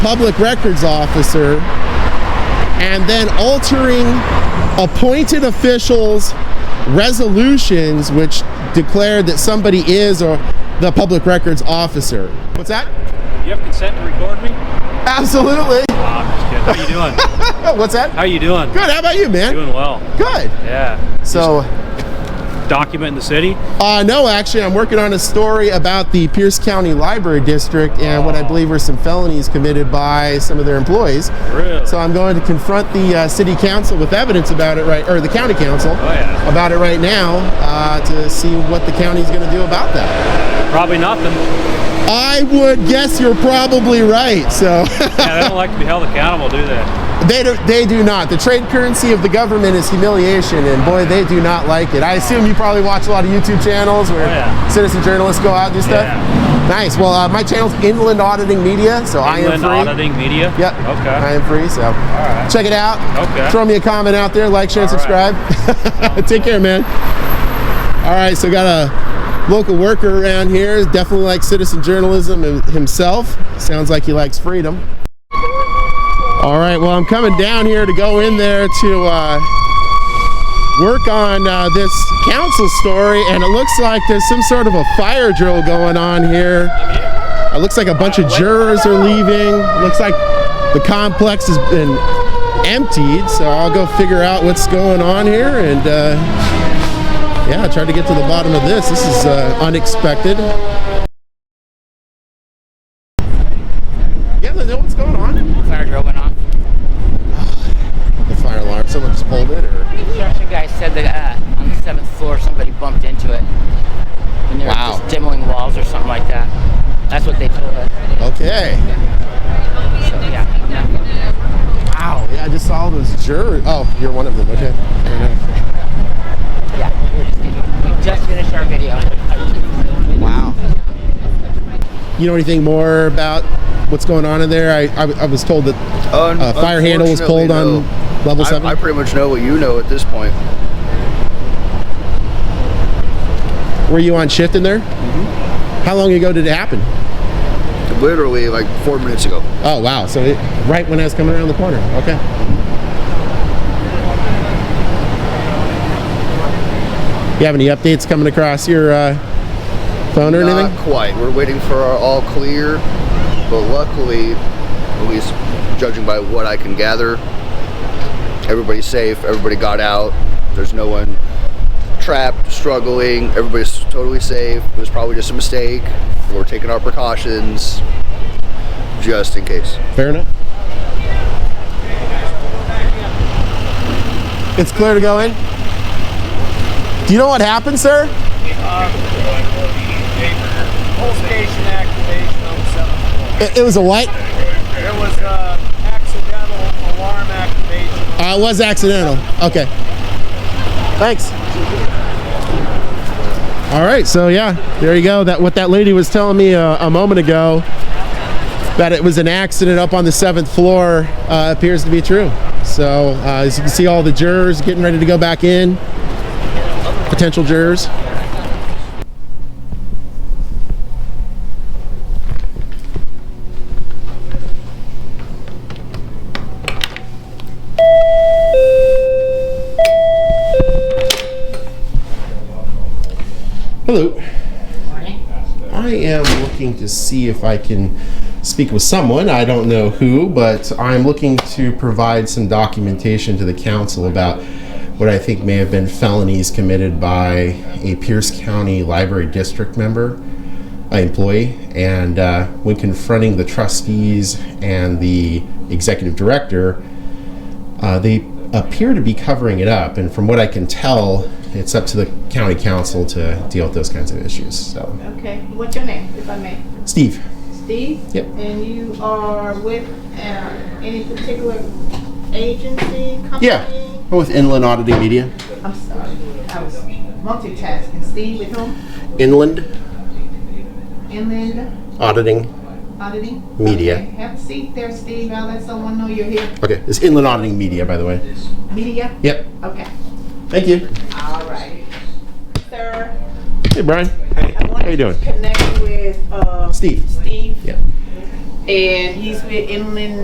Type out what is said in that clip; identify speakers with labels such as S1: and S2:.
S1: public records officer and then altering appointed officials' resolutions, which declared that somebody is or the public records officer. What's that?
S2: You have consent to record me?
S1: Absolutely.
S2: Oh, I'm just kidding. How you doing?
S1: Oh, What's that?
S2: How you doing?
S1: Good. How about you, man?
S2: Doing well.
S1: Good.
S2: Yeah.
S1: So,
S2: Document in the city.
S1: uh, no, actually, I'm working on a story about the Pierce County Library District and what I believe were some felonies committed by some of their employees.
S2: Really?
S1: So I'm going to confront the uh, city council with evidence about it, right, or the county council
S2: Oh, yeah.
S1: about it right now uh, to see what the county's going to do about that.
S2: Probably nothing.
S1: I would guess you're probably right. So
S2: Yeah, they don't like to be held accountable, do they?
S1: they do, they do not. The trade currency of the government is humiliation, and boy, they do not like it. I assume you probably watch a lot of YouTube channels where
S2: Oh, yeah.
S1: citizen journalists go out and do stuff.
S2: Yeah.
S1: Nice. Well, uh, my channel's Inland Auditing Media, so I am
S2: Inland
S1: free.
S2: auditing media.
S1: Yep. I
S2: Okay.
S1: am free. So
S2: right.
S1: check it out.
S2: Okay.
S1: Throw me a comment out there. Like, share, and
S2: All
S1: subscribe.
S2: right.
S1: Take care, man. All right. So got a local worker around here. Definitely likes citizen journalism him- himself. Sounds like he likes freedom. All right. Well, I'm coming down here to go in there to. Uh, Work on uh, this council story, and it looks like there's some sort of a fire drill going on here. It looks like a bunch of jurors are leaving. Looks like the complex has been emptied. So I'll go figure out what's going on here and uh, yeah, try to get to the bottom of this. This is uh, unexpected. Yeah, they know what's going on.
S3: Fire drill went off.
S1: The fire alarm. Someone just pulled it, or
S3: Construction guy said that uh, on the seventh floor somebody bumped into it when they were
S1: Wow.
S3: just demoing walls or something like that. That's what they told us.
S1: okay.
S3: So yeah. no. Wow.
S1: Yeah, I just saw those jurors. Oh, you're one of them. Okay. Fair enough.
S3: Yeah. We're just getting, we just finished our video.
S1: Wow. You know anything more about what's going on in there? I, I, I was told that
S4: Un-
S1: uh, fire handle was pulled
S4: unfortunately,
S1: on level
S4: no.
S1: seven.
S4: I, I pretty much know what you know at this point.
S1: Were you on shift in there? How long ago did it happen?
S4: Literally, like four minutes ago.
S1: Oh wow! So it, right when I was coming around the corner. Okay. You have any updates coming across your uh, phone or
S4: Not
S1: anything?
S4: quite. We're waiting for our all clear, but luckily, at least judging by what I can gather, everybody's safe. Everybody got out. There's no one trapped, struggling. Everybody's totally safe. It was probably just a mistake. We're taking our precautions just in case.
S1: Fair enough. It's clear to go in. Do you know what happened, sir?
S5: Whole station activation on the seventh floor.
S1: It, it was a what?
S5: There was uh, accidental alarm activation.
S1: Uh, it was accidental. Okay. Thanks. All right. So yeah, there you go. That what that lady was telling me uh, a moment ago that it was an accident up on the seventh floor uh, appears to be true. So uh, as you can see, all the jurors getting ready to go back in. Potential jurors. Hello. I am looking to see if I can speak with someone. I don't know who, but I'm looking to provide some documentation to the council about what I think may have been felonies committed by a Pierce County Library District member, uh, employee, and uh, when confronting the trustees and the executive director, uh, they appear to be covering it up, and from what I can tell, it's up to the county council to deal with those kinds of issues. So,
S6: Okay, what's your name, if I may?
S1: Steve.
S6: Steve?
S1: Yep.
S6: And you are with uh, any particular agency, company?
S1: Yeah, I'm with Inland Auditing Media.
S6: I'm sorry, I was multitasking. Steve with whom?
S1: Inland
S6: Inland
S1: Auditing
S6: Auditing?
S1: Media.
S6: Okay, Have a seat there, Steve. I'll let someone know you're here.
S1: Okay, it's Inland Auditing Media, by the way.
S6: Media?
S1: Yep.
S6: Okay,
S1: Thank you.
S6: all right. Sir,
S1: Hey, Brian.
S6: I
S1: you
S6: wanted
S1: doing?
S6: to connect with uh,
S1: Steve.
S6: Steve.
S1: Yeah.
S6: and he's with Inland